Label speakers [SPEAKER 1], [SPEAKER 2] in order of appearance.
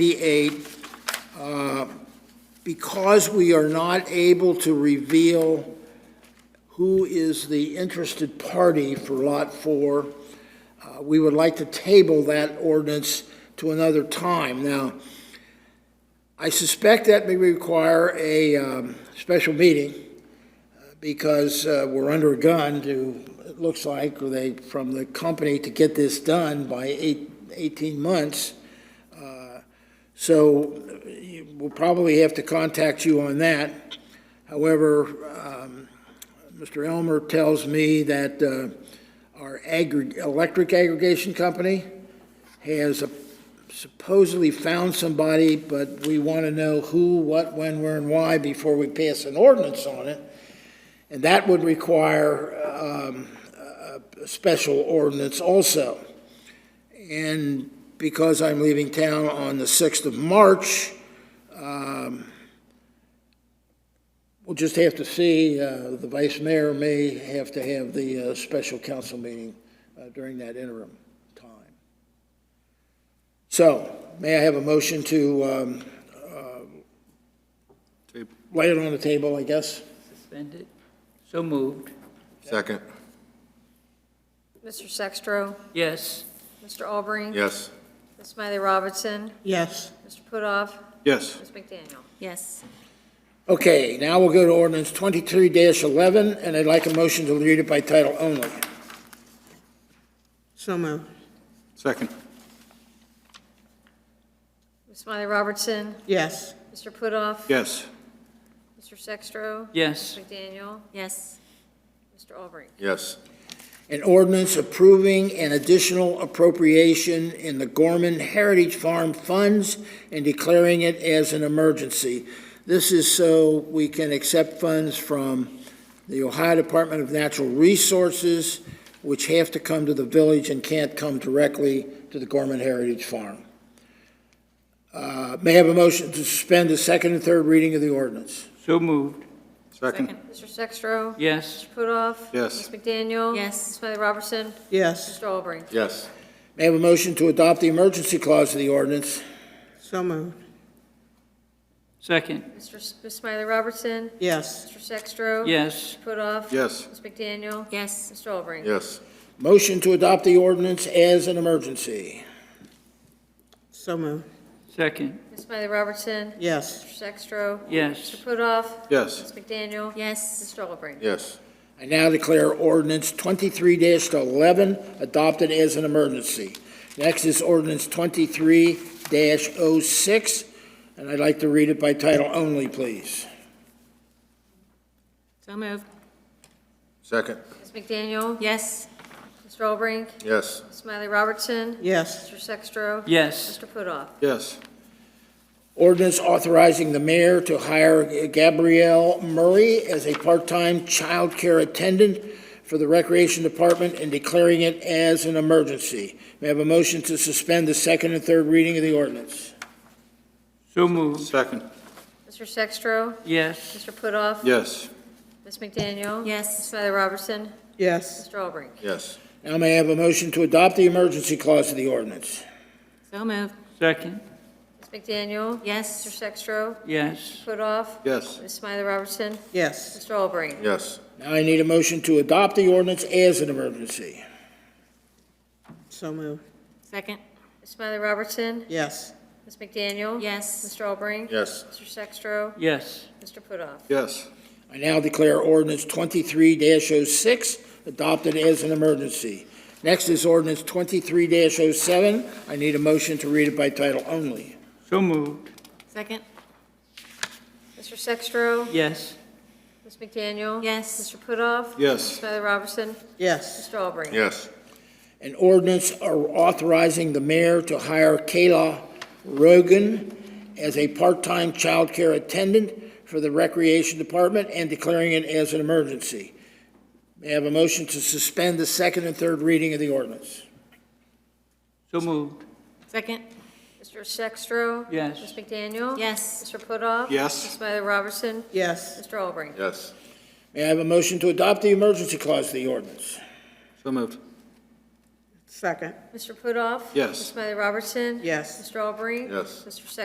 [SPEAKER 1] eight, uh, because we are not able to reveal who is the interested party for Lot 4, uh, we would like to table that ordinance to another time. Now, I suspect that may require a um, special meeting, uh, because uh, we're under a gun to, it looks like, they, from the company to get this done by eight- 18 months. So uh, you- we'll probably have to contact you on that. However, um, Mr. Elmer tells me that uh, our aggr- electric aggregation company has supposedly found somebody, but we want to know who, what, when, where, and why before we pass an ordinance on it. And that would require um, a a special ordinance also. And because I'm leaving town on the 6th of March, um, we'll just have to see, uh, the vice mayor may have to have the uh, special council meeting uh, during that interim time. So, may I have a motion to um, uh,
[SPEAKER 2] Table.
[SPEAKER 1] lay it on the table, I guess?
[SPEAKER 3] Suspended? So moved.
[SPEAKER 2] Second,
[SPEAKER 4] Mr. Sextro,
[SPEAKER 3] Yes,
[SPEAKER 4] Mr. Albrecht.
[SPEAKER 2] yes.
[SPEAKER 4] Ms. Smiley Robertson,
[SPEAKER 5] Yes.
[SPEAKER 4] Mr. Putoff,
[SPEAKER 2] Yes.
[SPEAKER 4] Ms. McDaniel.
[SPEAKER 5] Yes.
[SPEAKER 1] Okay, now we'll go to ordinance 23-11, and I'd like a motion to read it by title only.
[SPEAKER 5] So moved.
[SPEAKER 2] Second,
[SPEAKER 4] Ms. Smiley Robertson,
[SPEAKER 5] Yes.
[SPEAKER 4] Mr. Putoff.
[SPEAKER 2] yes.
[SPEAKER 4] Mr. Sextro.
[SPEAKER 3] yes,
[SPEAKER 4] Ms. McDaniel,
[SPEAKER 5] Yes.
[SPEAKER 4] Mr. Albrecht.
[SPEAKER 2] Yes.
[SPEAKER 1] An ordinance approving an additional appropriation in the Gorman Heritage Farm funds and declaring it as an emergency. This is so we can accept funds from the Ohio Department of Natural Resources, which have to come to the village and can't come directly to the Gorman Heritage Farm. Uh, May I have a motion to suspend the second and third reading of the ordinance?
[SPEAKER 3] so moved.
[SPEAKER 2] Second,
[SPEAKER 4] Mr. Sextro.
[SPEAKER 3] Yes,
[SPEAKER 4] Mr. Putoff.
[SPEAKER 2] Yes.
[SPEAKER 4] Ms. McDaniel.
[SPEAKER 5] Yes.
[SPEAKER 4] Ms. Smiley Robertson,
[SPEAKER 5] Yes.
[SPEAKER 4] Mr. Albrecht.
[SPEAKER 2] yes.
[SPEAKER 1] May I have a motion to adopt the emergency clause of the ordinance?
[SPEAKER 5] So moved.
[SPEAKER 3] second.
[SPEAKER 4] Mr. S- Ms. Smiley Robertson,
[SPEAKER 5] Yes.
[SPEAKER 4] Mr. Sextro.
[SPEAKER 3] Yes,
[SPEAKER 4] Mr. Putoff.
[SPEAKER 2] Yes.
[SPEAKER 4] Ms. McDaniel.
[SPEAKER 5] Yes.
[SPEAKER 4] Mr. Albrecht.
[SPEAKER 2] Yes.
[SPEAKER 1] Motion to adopt the ordinance as an emergency.
[SPEAKER 5] So moved.
[SPEAKER 3] second.
[SPEAKER 4] Ms. Smiley Robertson,
[SPEAKER 5] Yes.
[SPEAKER 4] Mr. Sextro.
[SPEAKER 3] Yes,
[SPEAKER 4] Mr. Putoff.
[SPEAKER 2] Yes.
[SPEAKER 4] Ms. McDaniel.
[SPEAKER 5] Yes.
[SPEAKER 4] Mr. Albrecht.
[SPEAKER 2] Yes.
[SPEAKER 1] I now declare ordinance twenty-three eleven adopted as an emergency. Next is ordinance twenty-three 6 and I'd like to read it by title only, please.
[SPEAKER 5] So moved.
[SPEAKER 2] Second,
[SPEAKER 4] Ms. McDaniel.
[SPEAKER 5] Yes.
[SPEAKER 4] Mr. Albrecht.
[SPEAKER 2] yes.
[SPEAKER 4] Ms. Smiley Robertson.
[SPEAKER 5] Yes.
[SPEAKER 4] Mr. Sextro.
[SPEAKER 3] yes,
[SPEAKER 4] Mr. Putoff.
[SPEAKER 2] Yes.
[SPEAKER 1] Ordinance authorizing the mayor to hire Gabrielle Murray as a part-time child care attendant for the Recreation Department and declaring it as an emergency. May I have a motion to suspend the second and third reading of the ordinance?
[SPEAKER 3] so moved.
[SPEAKER 2] Second,
[SPEAKER 4] Mr. Sextro.
[SPEAKER 3] Yes,
[SPEAKER 4] Mr. Putoff.
[SPEAKER 2] yes.
[SPEAKER 4] Ms. McDaniel. Ms.
[SPEAKER 5] Yes.
[SPEAKER 4] Smiley Robertson.
[SPEAKER 5] Yes.
[SPEAKER 4] Mr. Albrecht.
[SPEAKER 2] Yes.
[SPEAKER 1] Now may I have a motion to adopt the emergency clause of the ordinance?
[SPEAKER 5] So moved.
[SPEAKER 3] second.
[SPEAKER 4] Ms. McDaniel. Mr.
[SPEAKER 5] Yes.
[SPEAKER 4] Sextro.
[SPEAKER 3] Yes,
[SPEAKER 4] Putoff.
[SPEAKER 2] Yes.
[SPEAKER 4] Ms. Smiley Robertson.
[SPEAKER 5] Yes.
[SPEAKER 4] Mr. Albrecht.
[SPEAKER 2] Yes.
[SPEAKER 1] Now I need a motion to adopt the ordinance as an emergency.
[SPEAKER 5] So moved.
[SPEAKER 4] Second. Ms. Smiley Robertson.
[SPEAKER 5] Yes.
[SPEAKER 4] Ms. McDaniel.
[SPEAKER 5] Yes.
[SPEAKER 4] Mr. Albrecht.
[SPEAKER 2] Yes.
[SPEAKER 4] Mr. Sextro.
[SPEAKER 3] yes,
[SPEAKER 4] Mr. Putoff.
[SPEAKER 2] Yes.
[SPEAKER 1] I now declare ordinance twenty-three 6 adopted as an emergency. Next is ordinance twenty-three 7 I need a motion to read it by title only.
[SPEAKER 3] so moved.
[SPEAKER 5] Second.
[SPEAKER 4] Mr. Sextro.
[SPEAKER 3] Yes,
[SPEAKER 4] Ms. McDaniel.
[SPEAKER 5] Yes.
[SPEAKER 4] Mr. Putoff. Ms.
[SPEAKER 2] Yes.
[SPEAKER 4] Smiley Robertson.
[SPEAKER 5] Yes.
[SPEAKER 4] Mr. Albrecht.
[SPEAKER 2] Yes.
[SPEAKER 1] An ordinance authorizing the mayor to hire Kayla Rogan as a part-time child care attendant for the Recreation Department and declaring it as an emergency. May I have a motion to suspend the second and third reading of the ordinance?
[SPEAKER 3] so moved.
[SPEAKER 5] Second.
[SPEAKER 4] Mr. Sextro.
[SPEAKER 3] Yes.
[SPEAKER 4] Ms. McDaniel.
[SPEAKER 5] Yes.
[SPEAKER 4] Mr. Putoff.
[SPEAKER 2] Yes.
[SPEAKER 4] Ms. Smiley Robertson.
[SPEAKER 5] Yes.
[SPEAKER 4] Mr. Albrecht.
[SPEAKER 2] Yes.
[SPEAKER 1] May I have a motion to adopt the emergency clause of the ordinance?
[SPEAKER 2] So moved.
[SPEAKER 6] Second.
[SPEAKER 4] Mr. Putoff.
[SPEAKER 2] Yes.
[SPEAKER 4] Ms. Smiley Robertson.
[SPEAKER 6] Yes.
[SPEAKER 4] Mr. Aubrey.
[SPEAKER 2] Yes.
[SPEAKER 4] Mr. Sextro.